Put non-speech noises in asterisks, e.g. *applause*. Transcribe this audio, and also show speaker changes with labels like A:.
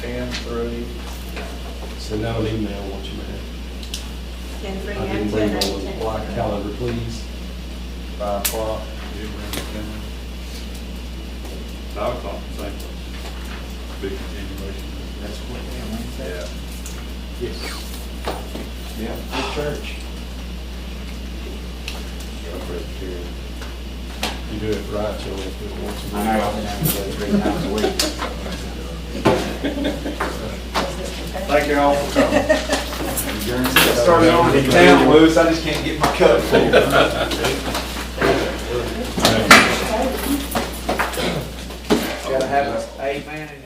A: ten through,
B: Send out an email once you have.
C: Ten three
B: I didn't
C: and
B: bring
C: ten
B: my
C: eight
B: little
C: ten.
B: block calendar, please.
A: five o'clock,
D: Five o'clock, same place. Big continuation.
A: that's what, yeah,
D: Yeah.
B: Yes.
A: Wednesday. Yeah, good church.
B: You do it right, you only have to do it once a week.
A: I know, I've been having to go three times a week.
D: Thank you all for coming.
A: Started over *laughs* in town, Louis, I just can't get my cup full. Gotta have an eight man in